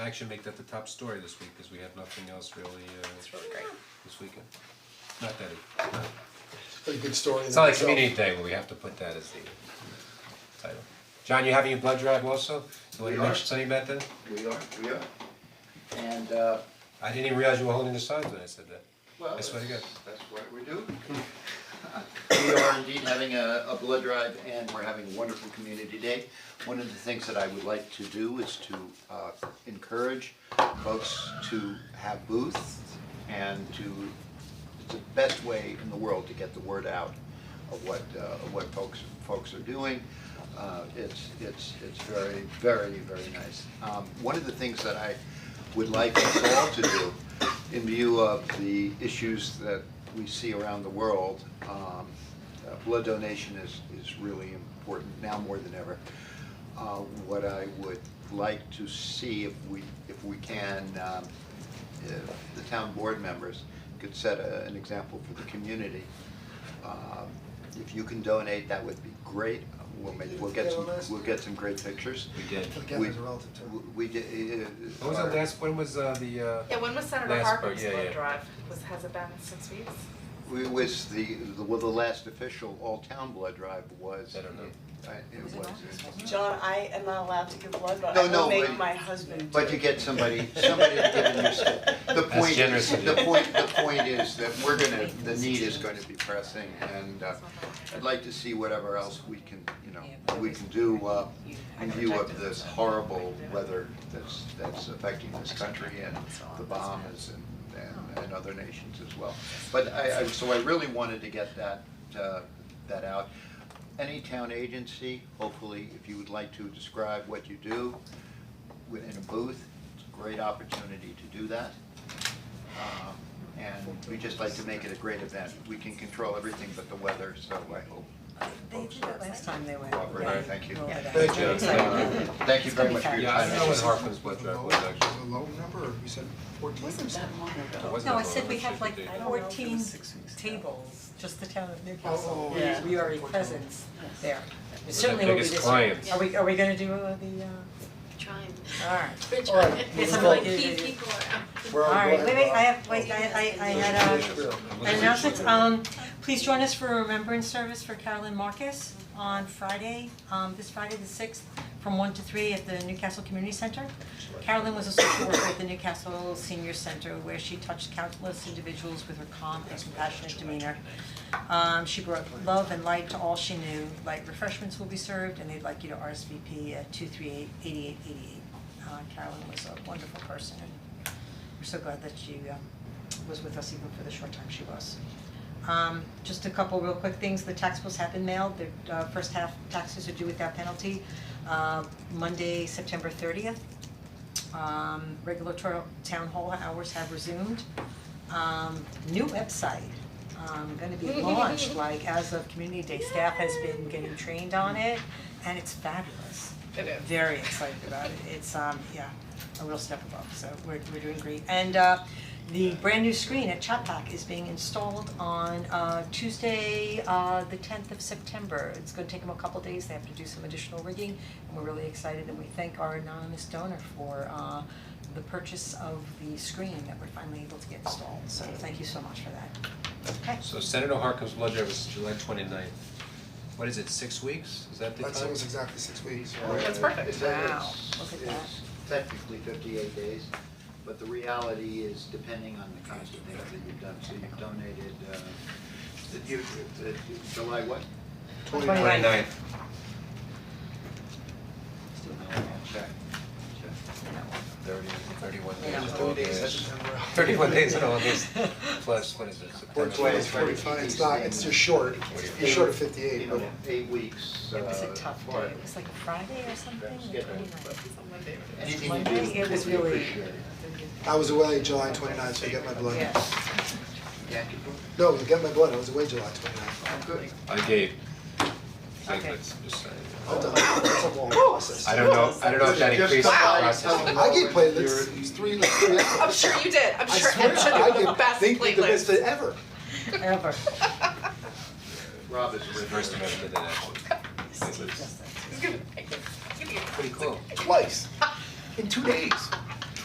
Action make that the top story this week, because we have nothing else really, It's uh, really great. this weekend. Not that, it- Pretty good story. it's not like Community Day where we have to put that as the title. John, you having your blood drive also? You want We to are. mention something about that? We are, we are. And, uh, I didn't even realize you were holding the signs when I said that. well, That's that's, what I got. that's what we do. We are indeed having a, a blood drive and we're having a wonderful community day. One of the things that I would like to do is to, uh, encourage folks to have booths and to, it's the best way in the world to get the word out of what, uh, of what folks, folks are doing. Uh, it's, it's, it's very, very, very nice. Um, one of the things that I would like us all to do, in view of the issues that we see around the world, um, uh, blood donation is, is really important now more than ever. Uh, what I would like to see if we, if we can, um, if the town board members could set a, an example for the community. Um, if you can donate, that would be great, we'll make, we'll get some, we'll get some great pictures. We did. But again, there's a relative to it. We- We, did, uh. What was the our- last, when was uh, the, uh, Yeah, when was Senator Last part, Harper's yeah, yeah. blood drive? Was, has it been six weeks? It was the, the- well, the last official all-town blood drive was. I don't know. I- It was. John, I am not allowed to give blood, but No, I no, will make but- my husband do it. But you get somebody, somebody giving you stuff. The point generous is, of the you. point, the point is that we're gonna, the need is gonna be pressing and uh, I'd like to see whatever else we can, you know, we can do uh, in view of this horrible weather that's, that's affecting this country and the Bahamas and, and, and other nations as well. But I, I, so I really wanted to get that, uh, that out. Any town agency, hopefully, if you would like to describe what you do, wi- in a booth, it's a great opportunity to do that. Um, and we just like to make it a great event, we can control everything but the weather, so I hope. They did that last time they went. Robert, Yeah. thank you. Roll it out. Thank you. Uh, Thank you very much for your Yeah, I time. don't know when Harper's blood Was it drive low, was actually. was it low number, or you said fourteen? It wasn't No, I that long, said we it have should like be. fourteen tables, just the town of Oh, Newcastle, oh, we yeah. we already 14. presence there. It We're Certainly their will be biggest this year. clients. Are we, are we gonna do uh, the, Trying. uh, alright. We're trying. Alright, It's It's a like big- keep people around. We're on Alright, blood wait, wait, I drive. have, wait, I, I, I had uh, a, An announcement, um, please join us for a remembrance service for Carolyn Marcus on Friday, um, this Friday the sixth, from one to three at the Newcastle Community Center. Carolyn was a social worker at the Newcastle Senior Center where she touched countless individuals with her calm and compassionate demeanor. Um, she brought love and light to all she knew, light refreshments will be served, and they'd like you to RSVP at two three eight eighty-eight eighty-eight. Uh, Carolyn was a wonderful person, and we're so glad that she, um, was with us even for the short time she was. Um, just a couple real quick things, the tax bills have been mailed, the uh, first half taxes are due without penalty, uh, Monday, September thirtieth. Um, regular tor- town hall hours have resumed. Um, new website, um, gonna be launched, like as of Community Day, staff has been getting trained on it, and it's fabulous It is. very excited about it, it's um, yeah, a real step above, so we're we're doing great. And uh, the brand new screen at Chapac is being installed on uh Tuesday, uh the tenth of September. It's gonna take them a couple days, they have to do some additional rigging, and we're really excited and we thank our anonymous donor for uh the purchase of the screen that we're finally able to get installed, so thank you so much for that. Okay. So Senator Harkin's blood drive is July 29th. What is it, six weeks? Is that the time? That's almost exactly six weeks. That's perfect. It's- it's- Wow, look at that. It's technically fifty-eight days, but the reality is depending on the kinds of things that you've done, so you've donated, uh, that you, that you- July what? Twenty ninth. 29th. Still no, I'll check, check. Thirty, thirty-one Yeah. days. Just all thirty days, days. that's just number. Thirty-one days in August, plus, what is it, Or September? twice, Right. forty-five, it's not, it's just short, Forty-five. you're short of You fifty-eight, but know, eight weeks, uh, It was a tough day, for it was like a Friday or something, Perhaps the get a- 29th. It's on Monday. anything you do, Monday, it was we really- appreciate it. I was away July twenty-ninth, so I get my blood. Yeah. Yankee Doodle. No, I get my blood, I was away July twenty-ninth. I'm Oh, good. I gave. Okay. Platelets, just saying. I'm done, that's a long process. I don't know, I don't know if that Just increased the about process. telling I gave Robert platelets, you're- it's three, like, three. I'm sure you did. I'm I sure, swear, I'm sure they I were the gave- best they did the best platelets. ever. Ever. Rob is a Reverse reverse. amendment to that. Steve does that. It's gonna- it's gonna be- Pretty cool. twice in two days.